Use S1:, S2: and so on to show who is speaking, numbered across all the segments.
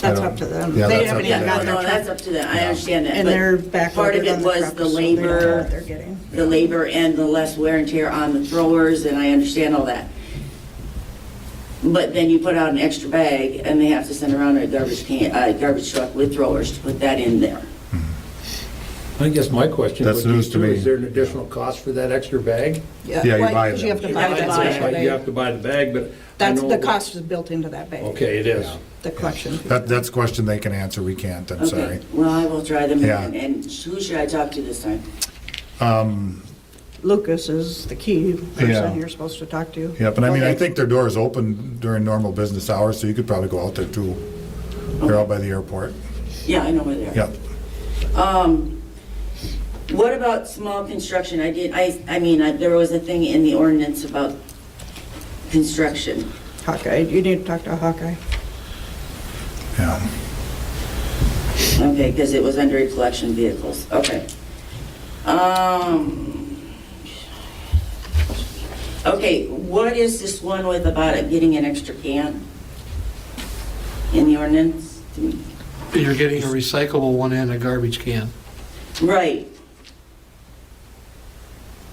S1: That's up to them.
S2: Yeah,
S1: They
S2: that's
S1: haven't
S2: up
S1: even
S2: to
S1: got
S2: them.
S1: their
S3: No, that's
S1: truck.
S3: up to them, I understand that.
S1: And
S3: but
S1: they're backloaded
S3: Part of it
S1: on the
S3: was
S1: truck,
S3: the
S1: so they don't know what
S3: labor,
S1: they're getting.
S3: the labor and the less wear and tear on the throwers, and I understand all that. But then you put out an extra bag, and they have to send around a garbage can, a garbage truck with throwers to put that in there.
S4: I guess my question
S2: That's
S4: would be
S2: news to
S4: too,
S2: me.
S4: is there an additional cost for that extra bag?
S2: Yeah, you
S1: Why-
S2: buy
S1: 'cause
S2: them.
S1: You have to
S3: You
S1: buy
S3: have to
S1: that
S3: buy
S1: special
S3: them.
S4: Like, you
S1: bag.
S4: have to buy the bag, but. I
S1: That's,
S4: know
S1: the
S4: what-
S1: cost is built into that bag.
S4: Okay, it is.
S1: The collection. fee.
S2: That, that's a question they can answer, we can't, I'm sorry.
S3: Okay. Well, I will try them,
S2: Yeah.
S3: and and who should I talk to this time?
S1: Lucas is the key
S2: Yeah.
S1: person you're supposed to talk to.
S2: Yep, and I mean, I
S1: Okay.
S2: think their door is open during normal business hours, so you could probably go out there too. They're out by the airport.
S3: Yeah, I know where they are.
S2: Yep,
S3: Um, what about small construction? I did, I, I mean, I- there was a thing in the ordinance about construction.
S1: Hawkeye, you need to talk to Hawkeye.
S2: yeah.
S3: Okay, because it was under collection vehicles, okay. Um, okay, what is this one with about it getting an extra can in the ordinance?
S5: You're getting a recyclable one and a garbage can.
S3: Right.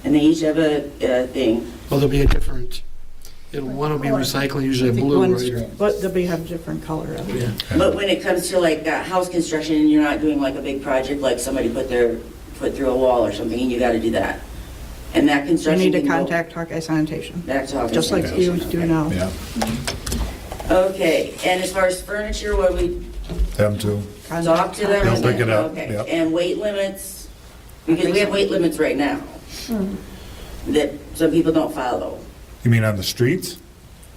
S3: And they each have a, uh thing.
S5: Well, there'll be a different, it'll, one will be recycling, usually
S1: I think
S5: blue,
S1: one's-
S5: right?
S1: But they'll be, have different color of it.
S5: Yeah.
S3: But when it comes to like uh, house construction and you're not doing like a big project, like somebody put their, put through a wall or something, and you gotta do that. And that
S1: You
S3: construction.
S1: need to
S3: can go
S1: contact Hawkeye Sanitation,
S3: Back to.
S1: just like you
S3: organization,
S1: do
S3: okay.
S1: now.
S2: Yeah,
S3: Okay, and as far as furniture, what we
S2: them too.
S3: talk
S1: Contact
S3: to them?
S2: They'll
S3: and
S2: pick it
S3: then-
S2: up,
S3: okay.
S2: yep.
S3: And weight limits, because we have weight limits right now that some people don't follow.
S2: You mean on the streets?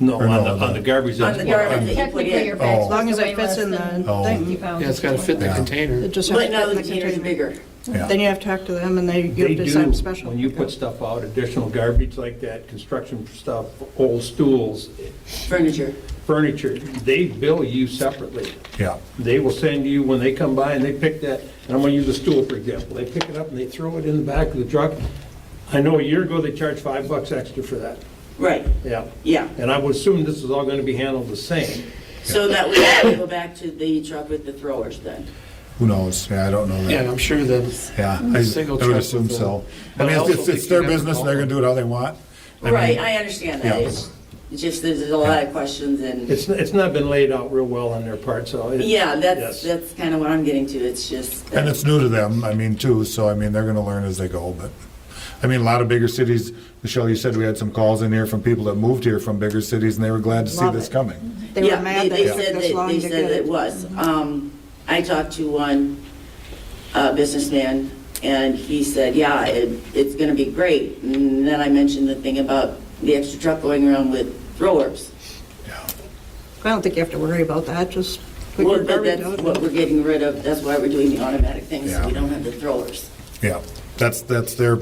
S6: No,
S2: Or
S6: on
S2: no,
S6: the,
S2: no.
S6: on the garbage.
S3: On
S6: that's
S3: the
S6: what I-
S3: garbage that you put
S7: Technically, your
S3: in.
S7: bag's
S2: Oh.
S1: As long as
S7: supposed
S1: it
S7: to weigh
S1: fits in
S7: less than
S2: Oh.
S1: the thing.
S7: 50 pounds.
S5: Yeah, it's gotta fit the
S2: Yeah.
S1: It
S5: container.
S1: just has
S3: But
S1: to fit
S3: no,
S1: in
S3: the containers are bigger.
S1: Then
S2: Yeah,
S1: you have to talk to them and they, you
S6: They
S1: have to decide
S6: do,
S1: special.
S6: when you put stuff out, additional garbage like that, construction stuff, old stools,
S3: Furniture.
S6: furniture, they bill you separately.
S2: yeah,
S6: They will send you, when they come by and they pick that, and I'm gonna use a stool, for example, they pick it up and they throw it in the back of the truck. I know a year ago, they charged five bucks extra for that,
S3: Right,
S6: yeah.
S3: yeah.
S6: And I would assume this is all gonna be handled the same.
S3: So that we have to go back to the truck with the throwers then.
S2: who knows? Yeah, I don't know
S5: Yeah,
S2: that.
S5: I'm sure that,
S2: Yeah, I
S5: Single
S2: I would
S5: truck
S2: assume
S5: with a-
S2: so. I
S5: But I
S2: mean, it's-
S5: also
S2: it's, it's
S5: think
S2: their
S5: you never
S2: business,
S5: know.
S2: they're gonna do it how they want. I mean,
S3: Right, I understand that.
S2: Yeah.
S3: It's it's just, there's a lot of questions and,
S6: It's, it's not been laid out real well on their part, so. it-
S3: yeah, that's,
S6: yes.
S3: that's kind of what I'm getting to. It's just.
S2: And it's new to them, I mean, too, so I mean, they're gonna learn as they go, but, I mean, a lot of bigger cities, Michelle, you said we had some calls in here from people that moved here from bigger cities, and they were glad to see
S1: Love
S2: this
S1: it.
S2: coming.
S1: They were
S3: Yeah,
S1: mad that
S3: they
S1: it took
S3: said
S1: this
S3: that-
S1: long
S3: They
S1: to
S3: said
S1: get
S3: it
S1: it.
S3: was. Um, I talked to one uh, businessman, and he said, yeah, it- it's going to be great. And then I mentioned the thing about the extra truck going around with throwers.
S1: I don't think you have to worry about that, just put
S3: Well,
S1: your
S3: but
S1: garbage
S3: that's what
S1: out.
S3: we're getting rid of, that's why we're doing the automatic thing, so we
S2: Yeah.
S3: don't have the throwers.
S2: Yeah, that's, that's their,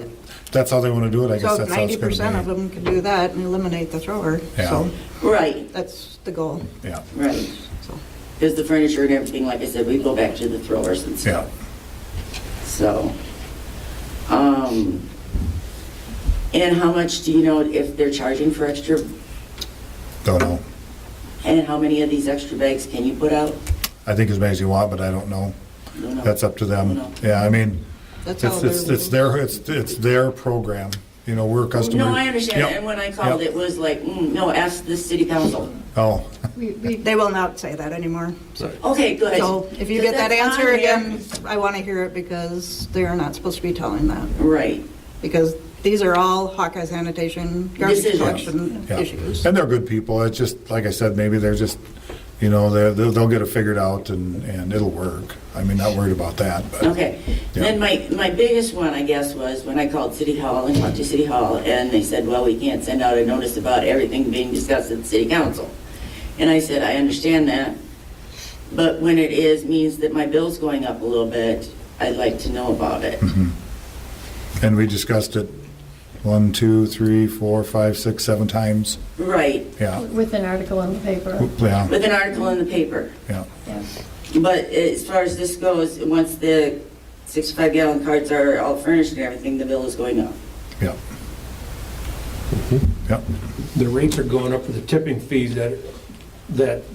S2: that's how they wanna do it, I guess
S1: So
S2: that's how it's
S1: ninety percent
S2: gonna
S1: of
S2: be.
S1: them can do that and eliminate the thrower,
S2: Yeah.
S1: so
S3: Right,
S1: that's the goal,
S2: Yeah,
S3: right.
S1: so.
S3: Because the furniture and everything, like I said, we go back to the throwers and stuff.
S2: yeah,
S3: So, um, and how much do you know if they're charging for extra,
S2: don't know.
S3: and how many of these extra bags can you put out?
S2: I think as many as you want, but I don't know.
S3: Don't know.
S2: That's up to
S3: No.
S2: them. Yeah, I mean,
S1: That's
S2: it's,
S1: all they're.
S2: it's, it's
S1: doing.
S2: their, it's, it's their program, you know,
S1: Oh,
S2: we're customers.
S3: No, I understand,
S2: Yep.
S3: and when I called,
S2: Yep.
S3: it was like, mm, no, ask the city council.
S2: Oh,
S7: We- we-
S1: They will not say that anymore.
S3: Okay, good.
S1: So if you
S3: Because
S1: get that
S3: that's
S1: answer
S3: on there.
S1: again, I want to hear it because they are not supposed to be telling that.
S3: Right,
S1: Because these are all Hawkeye sanitation garbage
S3: Decisions.
S1: collection
S2: yeah.
S1: issues.
S2: And they're good people, it's just, like I said, maybe they're just, you know, they're, they'll they'll get it figured out and, and it'll work. I mean, not worried about that, but.
S3: okay. Then my, my biggest one, I guess, was when I called City Hall and talked to City Hall, and they said, well, we can't send out a notice about everything being discussed at the city council. And I said, I understand that, but when it is, means that my bill's going up a little bit, I'd like to know about it.
S2: Hmm. Mm-hmm. And we discussed it one, two, three, four, five, six, seven times.
S3: Right,
S2: Yeah,
S7: With an article in the paper.
S2: yeah,
S3: with an article in the paper.
S2: yeah.
S3: But as far as this goes, once the 65 gallon carts are all furnished and everything, the bill is going up.
S2: Yep. Yep.
S6: The rates are going up for the tipping fees that, that